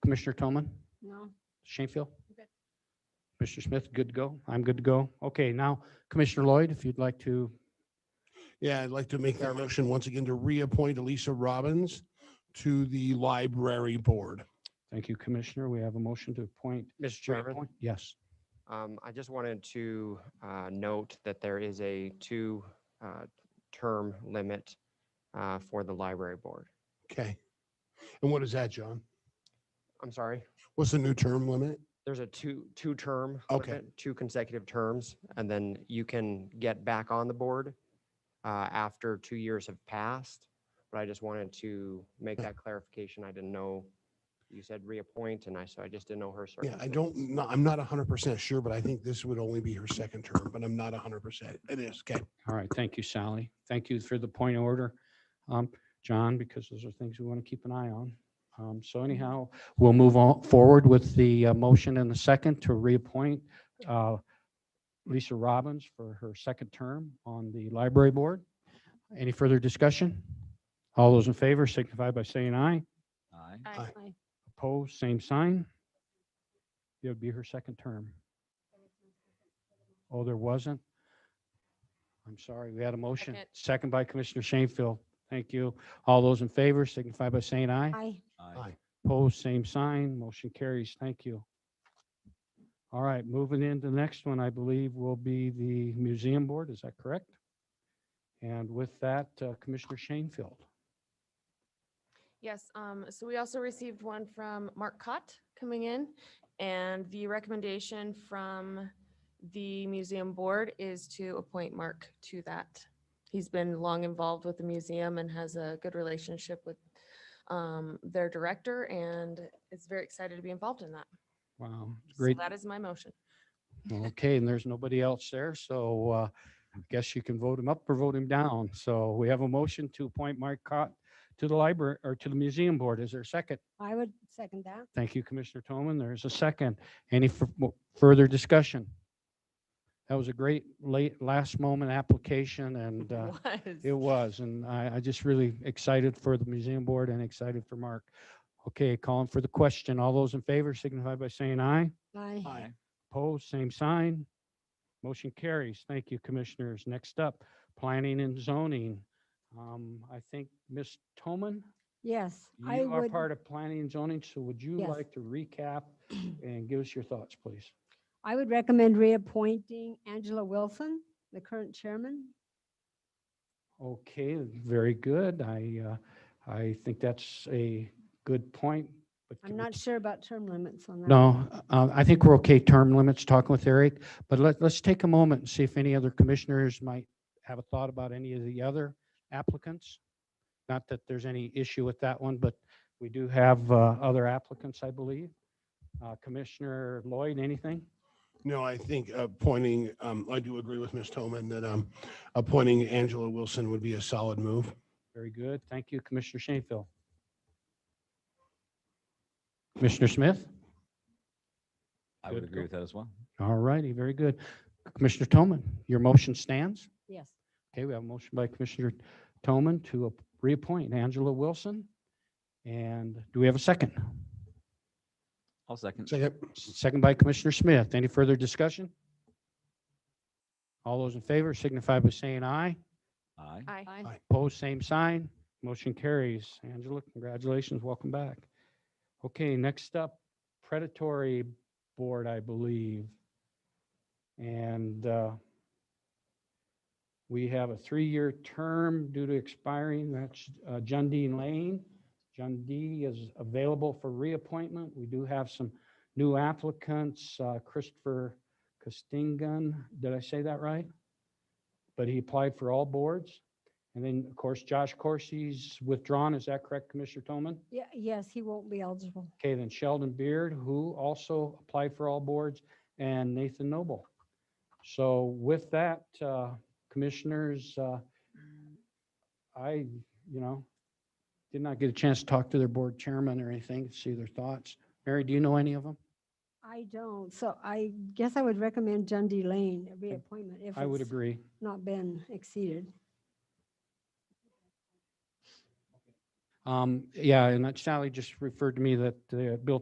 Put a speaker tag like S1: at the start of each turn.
S1: Commissioner Toman,
S2: No.
S1: Shanefield?
S2: Okay.
S1: Mr. Smith, good to go? I'm good to go. Okay, now Commissioner Lloyd, if you'd like to,
S3: Yeah, I'd like to make that motion once again to reappoint Elisa Robbins to the library board.
S1: thank you, Commissioner. We have a motion to appoint.
S4: Mr. Chairman,
S1: reappoint. Yes,
S4: um, I just wanted to, uh, note that there is a two, uh, term limit, uh, for the library board.
S3: Okay. And what is that, John?
S4: I'm sorry,
S3: What's the new term limit?
S4: there's a two, two term.
S3: Okay.
S4: limit, Two consecutive terms, and then you can get back on the board, uh, after two years have passed. But I just wanted to make
S3: Hmm.
S4: that clarification. I didn't know, you said reappoint, and I, so I just didn't know her.
S3: Yeah, I
S4: circumstances.
S3: don't, no, I'm not hundred percent sure, but I think this would only be her second term, but I'm not hundred percent. It is, okay.
S1: all right, thank you, Sally. Thank you for the point of order, um, John, because those are things we want to keep an eye on. Um, So anyhow, we'll move on forward with the uh, motion and the second to reappoint uh, Lisa Robbins for her second term on the library board. Any further discussion? All those in favor signify by saying aye.
S5: Aye.
S2: I
S1: Opposed, same sign. It would be her second term. Oh, there wasn't? I'm sorry, we had a motion.
S2: Second.
S1: Second by Commissioner Shanefield. Thank you. All those in favor signify by saying aye.
S2: Aye.
S3: Aye.
S1: Opposed, same sign. Motion carries. Thank you. All right, moving into the next one, I believe, will be the museum board. Is that correct? And with that, uh, Commissioner Shanefield.
S2: Yes, um, so we also received one from Mark Cott coming in. And the recommendation from the museum board is to appoint Mark to that. He's been long involved with the museum and has a good relationship with um, their director and is very excited to be involved in that.
S1: Wow, it's
S2: So
S1: great.
S2: that is my motion.
S1: Okay, and there's nobody else there, so uh, I guess you can vote him up or vote him down. So we have a motion to appoint Mark Cott to the library, or to the museum board. Is there a second?
S6: I would second that.
S1: Thank you, Commissioner Toman. There is a second. Any fu- mo- further discussion? That was a great late, last moment application and uh, it was,
S2: Was.
S1: and I, I just really excited for the museum board and excited for Mark. Okay, calling for the question. All those in favor signify by saying aye.
S6: Aye.
S3: Aye.
S1: Opposed, same sign. Motion carries. Thank you, commissioners. Next up, planning and zoning. Um, I think Ms. Toman,
S6: Yes, I
S1: you are
S6: would,
S1: part of planning and zoning, so would you
S6: Yes.
S1: like to recap and give us your thoughts, please?
S6: I would recommend reappointing Angela Wilson, the current chairman.
S1: Okay, very good. I, uh, I think that's a good point. but
S6: I'm
S1: can we
S6: not sure about term limits on that.
S1: No, uh, I think we're okay term limits, talking with Eric, but let, let's take a moment and see if any other commissioners might have a thought about any of the other applicants. Not that there's any issue with that one, but we do have uh, other applicants, I believe. Uh, Commissioner Lloyd, anything?
S3: No, I think appointing, um, I do agree with Ms. Toman that, um, appointing Angela Wilson would be a solid move.
S1: Very good. Thank you, Commissioner Shanefield. Commissioner Smith?
S5: I
S1: Good
S5: would
S1: to
S5: agree
S1: go.
S5: with that as well.
S1: All righty, very good. Commissioner Toman, your motion stands?
S6: Yes,
S1: Okay, we have a motion by Commissioner Toman to ap- reappoint Angela Wilson. And do we have a second?
S5: I'll second.
S3: Second.
S1: Second by Commissioner Smith. Any further discussion? All those in favor signify by saying aye.
S5: Aye.
S2: Aye.
S3: Aye.
S1: Opposed, same sign. Motion carries. Angela, congratulations, welcome back. Okay, next up, predatory board, I believe. And uh, we have a three-year term due to expiring. That's uh, Jundee Lane. Jundee is available for reappointment. We do have some new applicants, uh, Christopher Castingan. Did I say that right? But he applied for all boards. And then, of course, Josh Corsi's withdrawn. Is that correct, Commissioner Toman?
S6: yeah, yes, he won't be eligible.
S1: Okay, then Sheldon Beard, who also applied for all boards, and Nathan Noble. So with that, uh, commissioners, uh, I, you know, did not get a chance to talk to their board chairman or anything, see their thoughts. Mary, do you know any of them?
S6: I don't, so I guess I would recommend Dundee Lane a reappointment if
S1: I would
S6: it's
S1: agree.
S6: not been exceeded.
S1: Um, Yeah, and that Sally just referred to me that uh, Bill